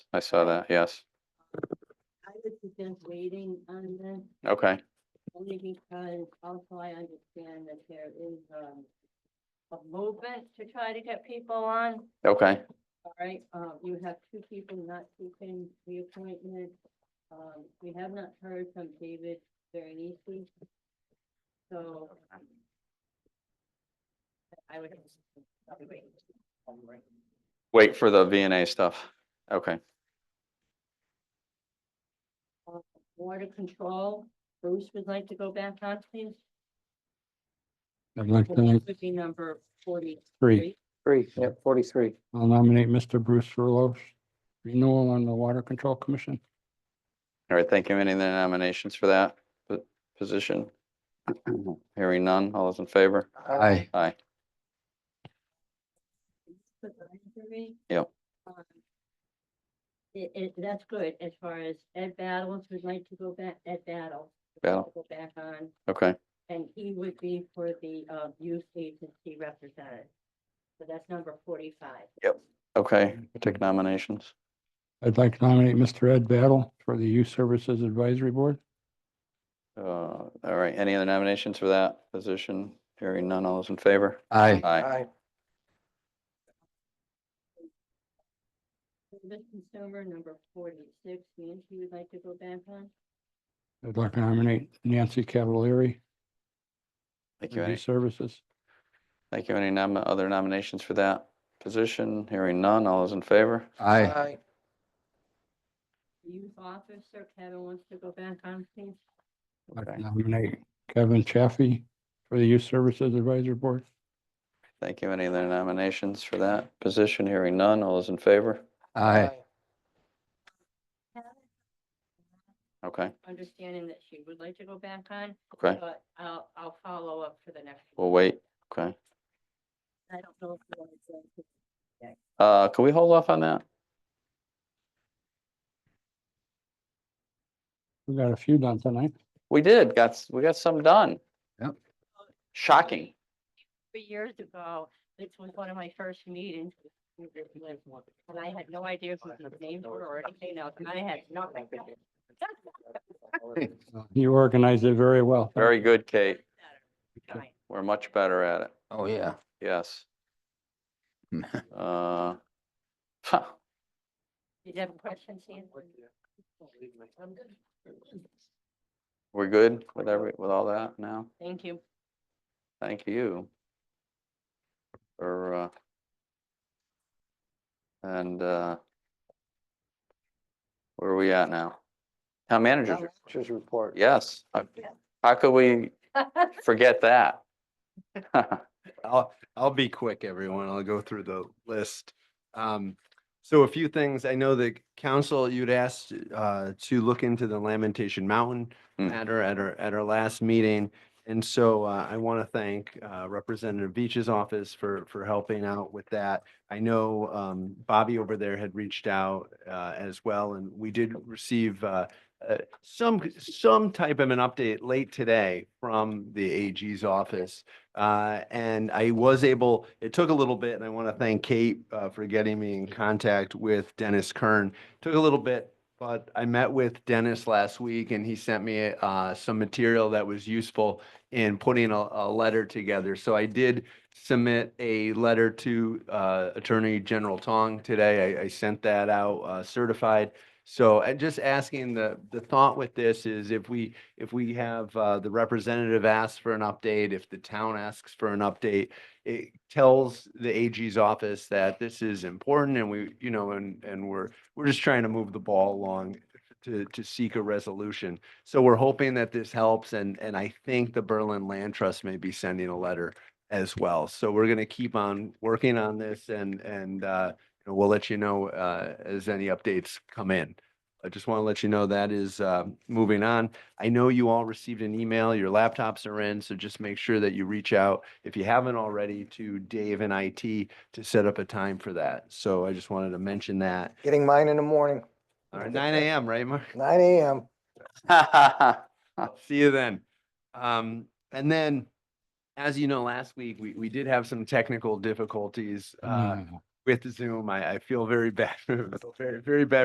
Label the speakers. Speaker 1: I saw that, yes.
Speaker 2: I would suggest waiting on this,
Speaker 1: Okay,
Speaker 2: only because also I understand that there is, um, a movement to try to get people on,
Speaker 1: okay,
Speaker 2: all right? Um, you have two people not seeking reappointment. Um, we have not heard from David Veronese. So. um, I would. I'll be waiting.
Speaker 1: wait for the V and A stuff. Okay,
Speaker 2: Water control, Bruce would like to go back on, please.
Speaker 3: I'd like to
Speaker 2: That would be number forty-three.
Speaker 3: Three.
Speaker 4: Three, yeah, forty-three.
Speaker 3: I'll nominate Mr. Bruce Furlos, renewal on the Water Control Commission.
Speaker 1: all right, thank you. Any other nominations for that po- position? Hearing none, all those in favor?
Speaker 3: Aye.
Speaker 1: Aye,
Speaker 2: Supervisory.
Speaker 1: Yep.
Speaker 2: Um, It, it, that's good as far as Ed Battles would like to go back, Ed Battle. would like
Speaker 1: Battle.
Speaker 2: to Go back on,
Speaker 1: okay,
Speaker 2: and he would be for the, uh, youth agency representative. So that's number forty-five.
Speaker 1: okay, we'll take nominations.
Speaker 3: I'd like to nominate Mr. Ed Battle for the Youth Services Advisory Board.
Speaker 1: Uh, all right, any other nominations for that position? Hearing none, all those in favor?
Speaker 3: Aye.
Speaker 1: Aye,
Speaker 2: Service consumer, number forty-six, Nancy would like to go back on.
Speaker 3: I'd like to nominate Nancy Cavalieri
Speaker 1: thank you.
Speaker 3: for
Speaker 1: Any,
Speaker 3: Youth Services.
Speaker 1: thank you. Any nom- other nominations for that position? Hearing none, all those in favor?
Speaker 3: Aye.
Speaker 2: Youth officer, Kevin wants to go back on, please.
Speaker 3: I'd like
Speaker 1: Okay.
Speaker 3: to nominate Kevin Chaffee for the Youth Services Advisory Board.
Speaker 1: Thank you. Any other nominations for that position? Hearing none, all those in favor? Okay,
Speaker 2: Understanding that she would like to go back on,
Speaker 1: okay,
Speaker 2: but I'll, I'll follow up for the next.
Speaker 1: we'll wait, okay.
Speaker 2: I don't know if you want to. go to-
Speaker 1: Uh, can we hold off on that?
Speaker 3: We got a few done tonight.
Speaker 1: We did, got, s- we got some done.
Speaker 3: Yep.
Speaker 1: Shocking.
Speaker 2: Three years ago, this was one of my first meetings. with Peter Winslow, And I had no idea who his names were or anything else, and I had nothing.
Speaker 3: You organized it very well.
Speaker 1: Very good, Kate.
Speaker 2: Fine.
Speaker 1: We're much better at it.
Speaker 4: Oh, yeah.
Speaker 1: Yes. Uh, huh,
Speaker 2: Did you have a question, Sam? I'm good.
Speaker 1: we're good with every, with all that now?
Speaker 2: Thank you.
Speaker 1: Thank you. For, uh, and, uh, where are we at now? Town managers, report.
Speaker 4: Just report.
Speaker 1: yes. How- How could we forget that?
Speaker 5: I'll, I'll be quick, everyone. I'll go through the list. Um, so a few things. I know the council, you'd asked, uh, to look into the Lamentation Mountain
Speaker 1: Mm.
Speaker 5: matter at our, at our last meeting. And so, uh, I want to thank, uh, Representative Beach's office for, for helping out with that. I know, um, Bobby over there had reached out, uh, as well, and we did receive, uh, uh, some, some type of an update late today from the AG's office. Uh, and I was able, it took a little bit, and I want to thank Kate uh, for getting me in contact with Dennis Kern. Took a little bit, but I met with Dennis last week and he sent me uh, some material that was useful in putting a, a letter together. So I did submit a letter to uh, Attorney General Tong today. I, I sent that out uh, certified. So I just asking the, the thought with this is if we if we have uh, the representative ask for an update, if the town asks for an update, it tells the AG's office that this is important and we, you know, and, and we're, we're just trying to move the ball along to, to seek a resolution. So we're hoping that this helps and, and I think the Berlin Land Trust may be sending a letter as well. So we're going to keep on working on this and, and uh, we'll let you know uh, as any updates come in. I just want to let you know that is uh, moving on. I know you all received an email, your laptops are in, so just make sure that you reach out, if you haven't already, to Dave and IT to set up a time for that. So I just wanted to mention that.
Speaker 4: Getting mine in the morning,
Speaker 5: All right, nine AM, right, Mark?
Speaker 4: nine AM.
Speaker 5: See you then. Um, and then, as you know, last week, we, we did have some technical difficulties uh,
Speaker 3: Mm.
Speaker 5: with Zoom. I, I feel very bad, I feel very, very bad